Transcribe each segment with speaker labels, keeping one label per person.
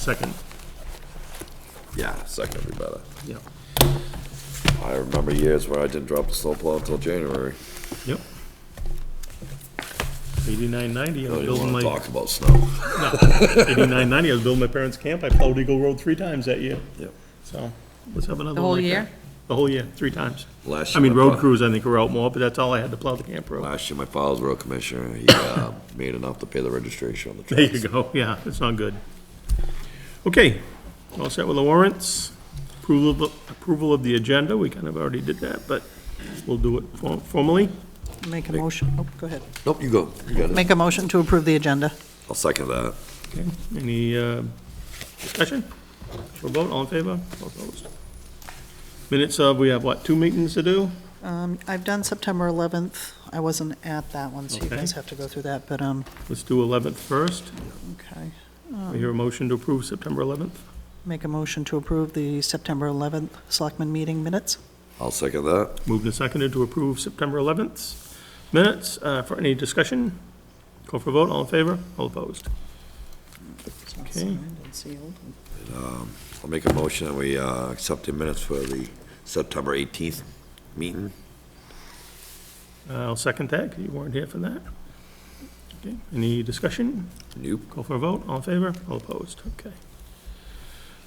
Speaker 1: Second,
Speaker 2: Yeah, second would be better.
Speaker 1: yeah,
Speaker 2: I remember years where I didn't drop the snowplow until January.
Speaker 1: yep. Eighty-nine ninety, I
Speaker 2: I
Speaker 1: was
Speaker 2: didn't
Speaker 1: building
Speaker 2: wanna
Speaker 1: my,
Speaker 2: talk about snow.
Speaker 1: eighty-nine ninety, I was building my parents' camp, I plowed Eagle Road three times that year,
Speaker 2: Yep.
Speaker 1: so, let's have another one.
Speaker 3: The whole
Speaker 1: like that.
Speaker 3: year?
Speaker 1: The whole year, three times.
Speaker 2: Last
Speaker 1: I mean,
Speaker 2: year I
Speaker 1: road
Speaker 2: plowed-
Speaker 1: crews, I think, were out more, but that's all I had to plow the camp road.
Speaker 2: Last year, my father's road commissioner, he, uh, made enough to pay the registration on the
Speaker 1: There
Speaker 2: trucks.
Speaker 1: you go, yeah, it's not good. Okay, all set with the warrants, approval, of- approval of the agenda, we kind of already did that, but we'll do it for- formally.
Speaker 3: Make a motion, oh, go ahead.
Speaker 2: Nope, you go, you got it.
Speaker 3: Make a motion to approve the agenda.
Speaker 2: I'll second that.
Speaker 1: Okay, any uh, discussion? For vote, all in favor, All opposed? Minutes of, we have what, two meetings to do?
Speaker 3: Um, I've done September 11th. I wasn't at that one, so you
Speaker 1: Okay.
Speaker 3: guys have to go through that, but, um,
Speaker 1: Let's do 11th first.
Speaker 3: okay.
Speaker 1: We hear a motion to approve September 11th.
Speaker 3: Make a motion to approve the September 11th Selectmen meeting minutes.
Speaker 2: I'll second that.
Speaker 1: Moved and seconded to approve September 11th. Minutes uh, for any discussion? Call for vote, all in favor, all opposed?
Speaker 3: It's all
Speaker 1: Okay.
Speaker 3: signed and sealed.
Speaker 2: I'll make a motion that we, uh, accept the minutes for the September eighteenth meeting.
Speaker 1: Uh, I'll second that, 'cause you weren't here for that. Okay, any discussion?
Speaker 2: Nope.
Speaker 1: Call for a vote, all in favor, all opposed, okay.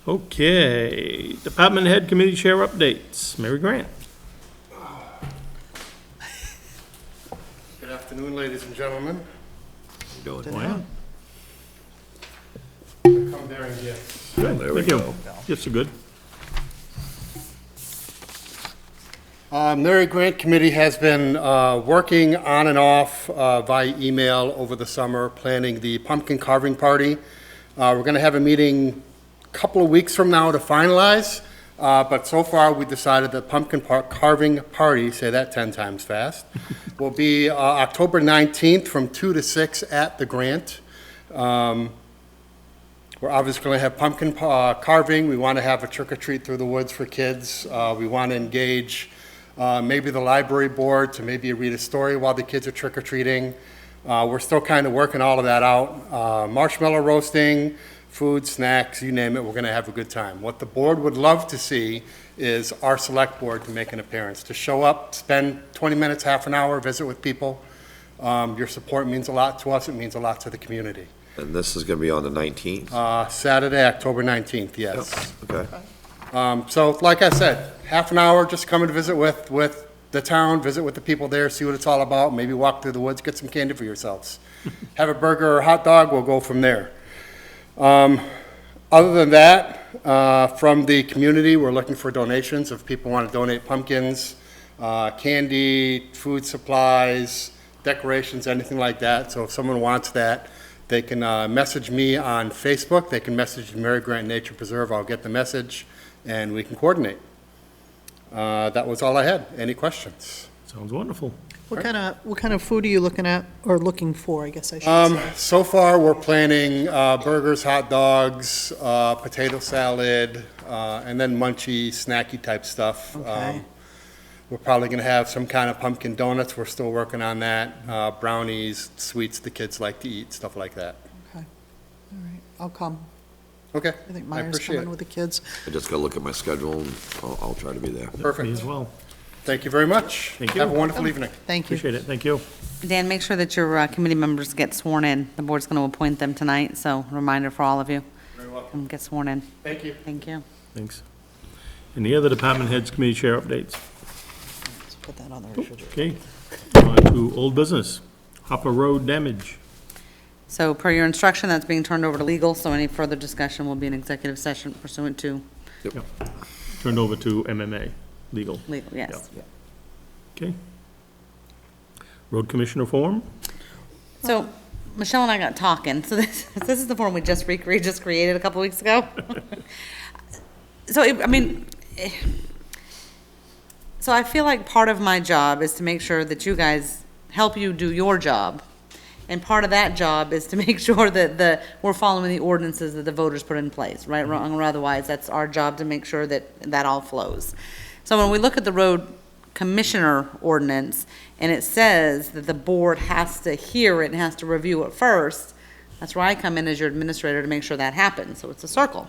Speaker 1: Okay, department head committee chair updates, Mary Grant.
Speaker 4: Good afternoon, ladies and gentlemen.
Speaker 2: You doing?
Speaker 1: Wow.
Speaker 4: Come bearing gifts.
Speaker 1: Good,
Speaker 2: There we
Speaker 1: thank you.
Speaker 2: go.
Speaker 1: Gifts are good.
Speaker 4: Uh, Mary Grant Committee has been uh, working on and off uh, via email over the summer, planning the pumpkin carving party. Uh, We're going to have a meeting a couple of weeks from now to finalize, uh, but so far, we decided the pumpkin par- carving party, say that 10 times fast, will be uh, October 19th from 2 to 6 at the Grant. Um, We're obviously going to have pumpkin uh, carving. We want to have a trick or treat through the woods for kids. Uh, We want to engage uh, maybe the library board to maybe read a story while the kids are trick or treating. Uh, We're still kind of working all of that out. Uh, Marshmallow roasting, food, snacks, you name it, we're going to have a good time. What the board would love to see is our select board to make an appearance, to show up, spend 20 minutes, half an hour, visit with people. Um, Your support means a lot to us. It means a lot to the community.
Speaker 2: And this is gonna be on the nineteenth?
Speaker 4: Uh, Saturday, October 19th, yes.
Speaker 2: Okay.
Speaker 4: Um, So like I said, half an hour, just come and visit with, with the town, visit with the people there, see what it's all about, maybe walk through the woods, get some candy for yourselves. Have a burger or a hot dog, we'll go from there. Um, Other than that, uh, from the community, we're looking for donations. If people want to donate pumpkins, uh, candy, food supplies, decorations, anything like that. So if someone wants that, they can uh, message me on Facebook. They can message Mary Grant Nature Preserve. I'll get the message, and we can coordinate. Uh, That was all I had. Any questions?
Speaker 1: Sounds wonderful.
Speaker 3: What kind of, what kind of food are you looking at, or looking for, I guess I should
Speaker 4: Um,
Speaker 3: say?
Speaker 4: so far, we're planning uh, burgers, hot dogs, uh, potato salad, uh, and then munchy, snacky type stuff. Um,
Speaker 3: Okay.
Speaker 4: We're probably gonna have some kind of pumpkin donuts, we're still working on that, uh, brownies, sweets the kids like to eat, stuff like that.
Speaker 3: All right, I'll come.
Speaker 4: Okay,
Speaker 3: I think
Speaker 4: I
Speaker 3: Myers
Speaker 4: appreciate
Speaker 3: coming
Speaker 4: it.
Speaker 3: with the kids.
Speaker 2: I just gotta look at my schedule and I'll, I'll try to be there.
Speaker 1: Me
Speaker 4: Perfect,
Speaker 1: as well.
Speaker 4: thank you very much.
Speaker 1: Thank
Speaker 4: Have a
Speaker 1: you.
Speaker 4: wonderful evening.
Speaker 3: Thank you.
Speaker 1: Appreciate it, thank you.
Speaker 5: Dan, make sure that your uh, committee members get sworn in. The board's going to appoint them tonight, so reminder for all of you.
Speaker 4: Very welcome,
Speaker 5: Come get sworn in.
Speaker 4: thank you.
Speaker 5: Thank you.
Speaker 1: Thanks. And the other department heads committee chair updates.
Speaker 3: Let's Put that on the refrigerator.
Speaker 1: Okay, on to old business. Hopper Road damage.
Speaker 5: So per your instruction, that's being turned over to legal, so any further discussion will be an executive session pursuant to
Speaker 1: Turned over to MMA, legal,
Speaker 5: legal, yes.
Speaker 1: okay? Road commissioner form?
Speaker 5: So Michelle and I got talking, so this, this is the form we just recre, just created a couple weeks ago. So, it- I mean, eh, so I feel like part of my job is to make sure that you guys help you do your job. And part of that job is to make sure that the, we're following the ordinances that the voters put in place, right, wrong, or otherwise. That's our job to make sure that that all flows. So when we look at the road commissioner ordinance, and it says that the board has to hear it and has to review it first, That's where I come in as your administrator to make sure that happens, so it's a circle.